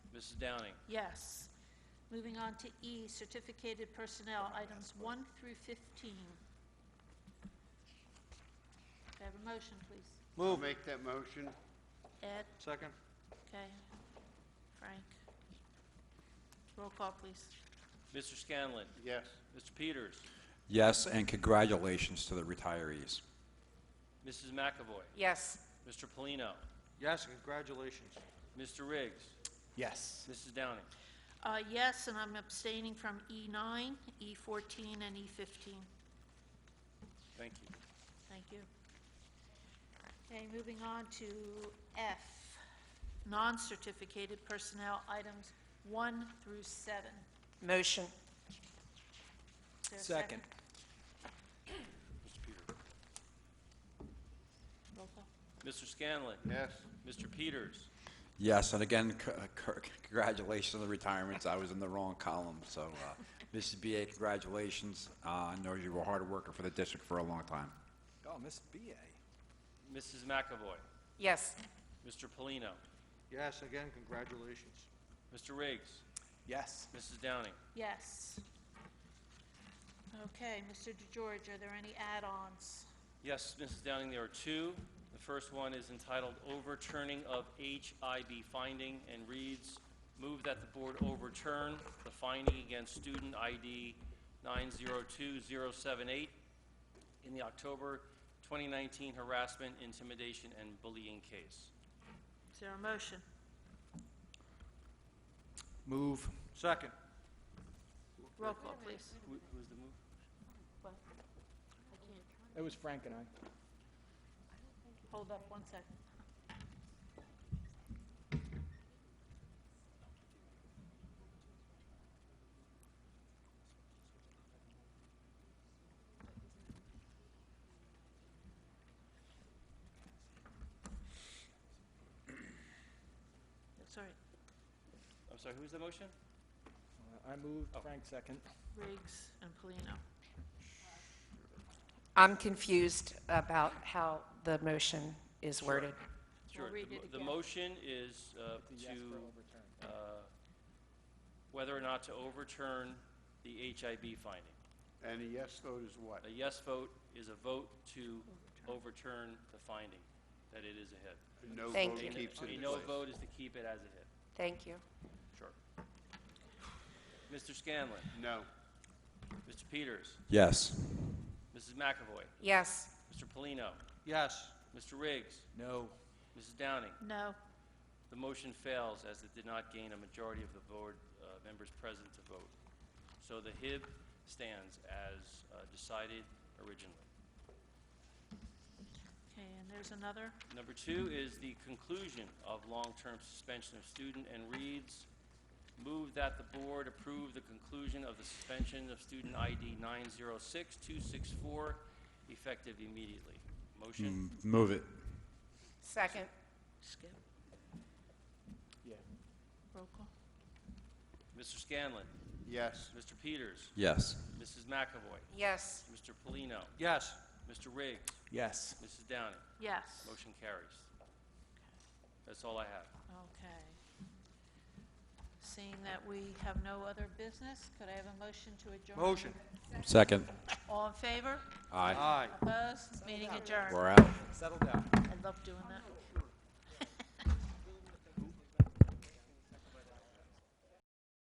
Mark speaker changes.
Speaker 1: Mrs. Downing?
Speaker 2: Yes. Moving on to E, certificated personnel, items 1 through 15. Could I have a motion, please?
Speaker 3: I'll make that motion.
Speaker 2: Ed?
Speaker 4: Second?
Speaker 2: Okay. Frank? Roll call, please.
Speaker 1: Mr. Scanlon?
Speaker 3: Yes.
Speaker 1: Mr. Peters?
Speaker 5: Yes, and congratulations to the retirees.
Speaker 1: Mrs. McAvoy?
Speaker 6: yes,
Speaker 1: Mr. Polino?
Speaker 4: Yes, and congratulations.
Speaker 1: Mr. Riggs?
Speaker 7: yes,
Speaker 1: Mrs. Downing?
Speaker 2: Uh, Yes, and I'm abstaining from E E9, E14, and E E15.
Speaker 1: Thank you.
Speaker 2: Thank you. Okay, moving on to F, non-certificated personnel, items 1 through 7.
Speaker 6: motion,
Speaker 2: Is there a
Speaker 7: second,
Speaker 2: Roll call.
Speaker 1: Mr. Scanlon?
Speaker 3: Yes.
Speaker 1: Mr. Peters?
Speaker 5: Yes, and again, c- c- congratulations on the retirements. I was in the wrong column, so uh, Mrs. BA, congratulations. Uh, I know you were a hard worker for the district for a long time.
Speaker 7: oh, Miss BA,
Speaker 1: Mrs. McAvoy?
Speaker 6: yes,
Speaker 1: Mr. Polino?
Speaker 4: Yes, again, congratulations.
Speaker 1: Mr. Riggs?
Speaker 7: yes,
Speaker 1: Mrs. Downing?
Speaker 2: Yes. Okay, Mr. DeGeorge, are there any add-ons?
Speaker 1: Yes, Mrs. Downing, there are two. The first one is entitled Overturning of HIB Finding and reads, "Move that the board overturn the finding against student ID 902078 in the October 2019 harassment, intimidation, and bullying case."
Speaker 2: Is there a motion?
Speaker 7: move,
Speaker 4: Second?
Speaker 2: Roll call, please.
Speaker 1: Who was the move?
Speaker 7: it was Frank and I.
Speaker 2: Hold up one second. That's all right.
Speaker 1: I'm sorry, who was the motion?
Speaker 7: Uh, I moved, Frank second.
Speaker 2: Riggs and Polino.
Speaker 6: I'm confused about how the motion is worded.
Speaker 1: Sure.
Speaker 2: read
Speaker 1: The
Speaker 2: it
Speaker 1: mo- The
Speaker 2: again.
Speaker 1: motion is uh,
Speaker 7: The yes for
Speaker 1: to,
Speaker 7: overturn.
Speaker 1: uh, whether or not to overturn the HIB finding.
Speaker 3: And a yes vote is what?
Speaker 1: A yes vote is a vote to overturn the finding that it is a hit.
Speaker 3: A no
Speaker 6: Thank
Speaker 3: vote
Speaker 6: you.
Speaker 1: And
Speaker 3: keeps it in place.
Speaker 1: A no vote is to keep it as a hit.
Speaker 6: Thank you.
Speaker 1: Sure. Mr. Scanlon,
Speaker 3: No.
Speaker 1: Mr. Peters,
Speaker 5: Yes.
Speaker 1: Mrs. McAvoy,
Speaker 6: Yes,
Speaker 1: Mr. Polino,
Speaker 4: Yes.
Speaker 1: Mr. Riggs,
Speaker 7: No,
Speaker 1: Mrs. Downing.
Speaker 2: No.
Speaker 1: The motion fails as it did not gain a majority of the board uh, members present to vote. So the HIB stands as uh, decided originally.
Speaker 2: Okay, and there's another.
Speaker 1: Number two is the conclusion of long-term suspension of student and reads, move that the board approve the conclusion of the suspension of student ID 906264 effective immediately. Motion?
Speaker 5: M- Mm, Move it.
Speaker 6: second,
Speaker 2: Skip.
Speaker 7: yeah.
Speaker 2: Roll call.
Speaker 1: Mr. Scanlon,
Speaker 3: Yes.
Speaker 1: Mr. Peters,
Speaker 5: Yes.
Speaker 1: Mrs. McAvoy,
Speaker 6: yes,
Speaker 1: Mr. Polino,
Speaker 4: Yes.
Speaker 1: Mr. Riggs,
Speaker 7: Yes,
Speaker 1: Mrs. Downing.
Speaker 2: Yes.
Speaker 1: Motion carries. That's all I have.
Speaker 2: Okay. Seeing that we have no other business, could I have a motion to adjourn?
Speaker 4: Motion?
Speaker 5: Second.
Speaker 2: All in favor?
Speaker 5: Aye.
Speaker 4: Aye.
Speaker 2: Opposed? Meeting adjourned.
Speaker 5: We're out.
Speaker 7: settle down.
Speaker 2: I love doing that.